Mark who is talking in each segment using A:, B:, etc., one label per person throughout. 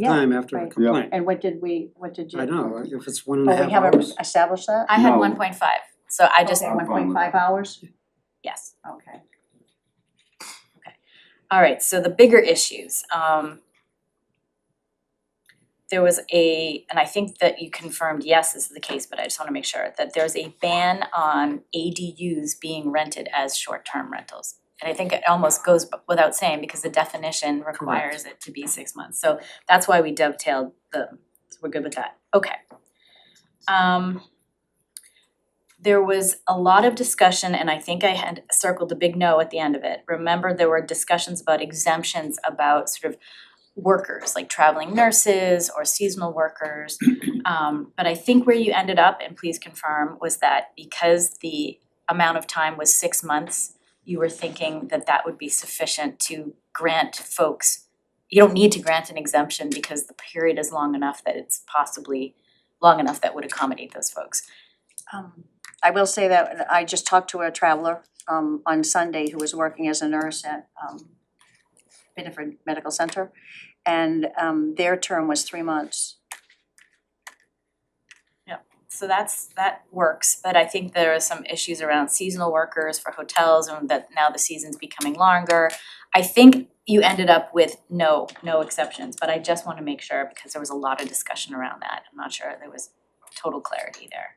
A: Yeah,
B: time after a
A: right.
B: complaint.
A: and what did we, what did you?
B: I know, if it's one and a
A: Oh,
B: half
A: we haven't
B: hours,
A: established that?
C: I had
D: No.
C: one point five, so I just,
A: Okay, one
D: fine
A: point
D: with
A: five
D: that.
A: hours,
C: yes,
A: okay.
C: alright, so the bigger issues, um. There was a, and I think that you confirmed, yes, this is the case, but I just wanna make sure, that there's a ban on ADUs being rented as short-term rentals. And I think it almost goes b- without saying, because the definition requires it to be six months, so that's why we dovetailed the, so we're good with that, okay. Um. there was a lot of discussion, and I think I had circled the big no at the end of it. Remember, there were discussions about exemptions about sort of workers, like traveling nurses or seasonal workers. Um, but I think where you ended up, and please confirm, was that because the amount of time was six months, you were thinking that that would be sufficient to grant folks, you don't need to grant an exemption because the period is long enough that it's possibly long enough that would accommodate those folks.
A: Um, I will say that I just talked to a traveler, um, on Sunday who was working as a nurse at, um, Bedford Medical Center, and, um, their term was three months.
C: so that's, that works, but I think there are some issues around seasonal workers for hotels and that now the season's becoming longer. I think you ended up with no, no exceptions, but I just wanna make sure because there was a lot of discussion around that. I'm not sure there was total clarity there.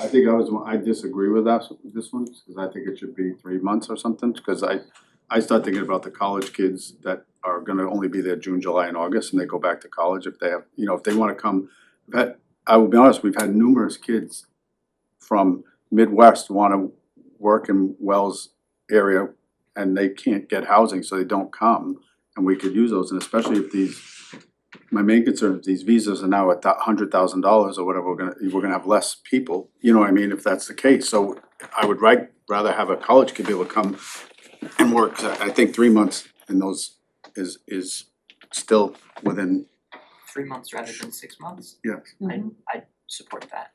D: I think I was, I disagree with that, this one, because I think it should be three months or something, because I, I start thinking about the college kids that are gonna only be there June, July, and August, and they go back to college if they have, you know, if they wanna come. we've had- I will be honest, we've had numerous kids from Midwest wanna work in Wells area, and they can't get housing, so they don't come, and we could use those, and especially if these my main concern is these visas are now at that hundred thousand dollars or whatever, we're gonna, we're gonna have less people, you know what I mean, if that's the case, so I would right, rather have a college kid be able to come and work, 'Cause I I think three months in those is is still within,
E: three months rather than six months,
C: Mm-hmm.
E: support that.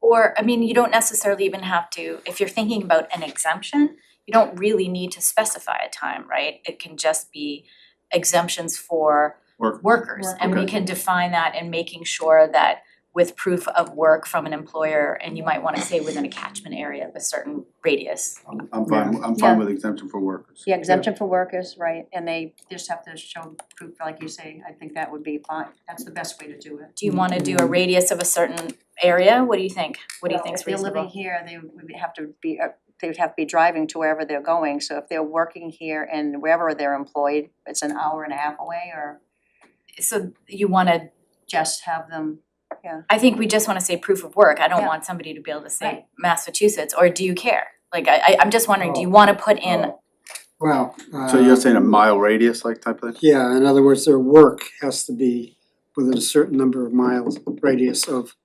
C: Or, I mean, you don't necessarily even have to, if you're thinking about an exemption, you don't really need to specify a time, right? It can just be exemptions for
D: Work-
C: workers, and we
D: Okay.
C: can define that in making sure that with proof of work from an employer, and you might wanna say within a catchment area of a certain radius.
D: I'm I'm fine, I'm fine
A: Yeah.
D: with exemption for workers.
A: Yeah, exemption for workers, right, and they just have to show proof, like you say, I think that would be fine, that's the best way to do it.
C: Do you wanna do a radius of a certain area? What do you think? What do you
A: Well,
C: think's reasonable?
A: If they're living here, they would have to be, uh, they would have to be driving to wherever they're going, so if they're working here and wherever they're employed, it's an hour and a half away, or
C: So you wanna,
A: just have them,
C: I think we just wanna say proof of work. I don't
A: Yeah.
C: want somebody to be able to
A: Right.
C: say Massachusetts, or do you care? Like, I I I'm just wondering, do you wanna put in,
B: well, uh.
D: So you're saying a mile radius like type of thing?
B: Yeah, in other words, their work has to be within a certain number of miles radius of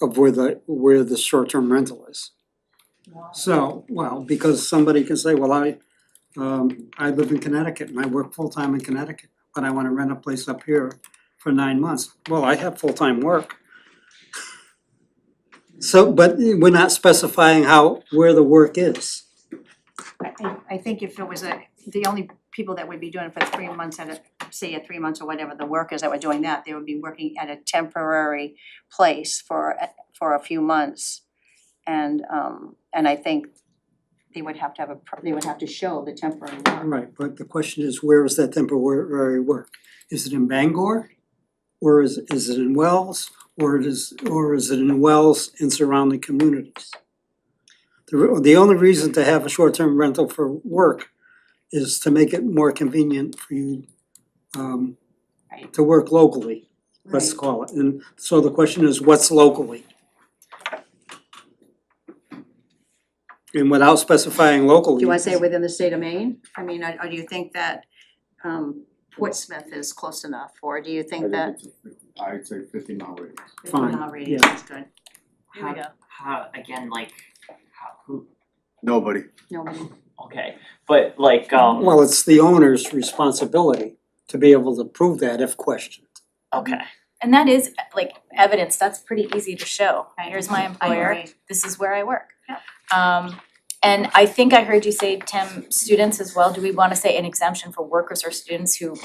B: of where the where the short-term rental is. So, well, because somebody can say, well, I um I live in Connecticut and I work full-time in Connecticut, but I wanna rent a place up here for nine months. Well, I have full-time work. So, but we're not specifying how where the work is.
A: I think, I think if it was a, the only people that would be doing it for three months at a, say at three months or whatever, the workers that were doing that, they would be working at a temporary place for, a- for a few months. And, um, and I think they would have to have a, pr- they would have to show the temporary work.
B: Right, but the question is, where is that temporary work? Is it in Bangor? Or is is it in Wells? Or it is, or is it in Wells and surrounding communities? The re- the only reason to have a short-term rental for work is to make it more convenient for you um
A: Right.
B: to work locally, let's call it, and so the question is, what's locally? And without specifying locally.
A: Do you wanna say within the state of Maine? I mean, or or do you think that um Portsmouth is close enough, or do you think that
D: I'd say fifty mile radius.
B: Fine,
A: Mile radius
B: yeah.
A: is good?
C: here we go.
E: How, again, like, how, who,
D: Nobody,
A: Nobody,
E: okay, but like, um,
B: Well, it's the owner's responsibility to be able to prove that if questioned.
E: okay,
C: and that is like evidence, that's pretty easy to show.
A: Right.
C: Here's my
A: I
C: employer,
A: agree.
C: this is where I work.
A: Yeah.
C: Um, And I think I heard you say, Tim, students as well, do we wanna say an exemption for workers or students who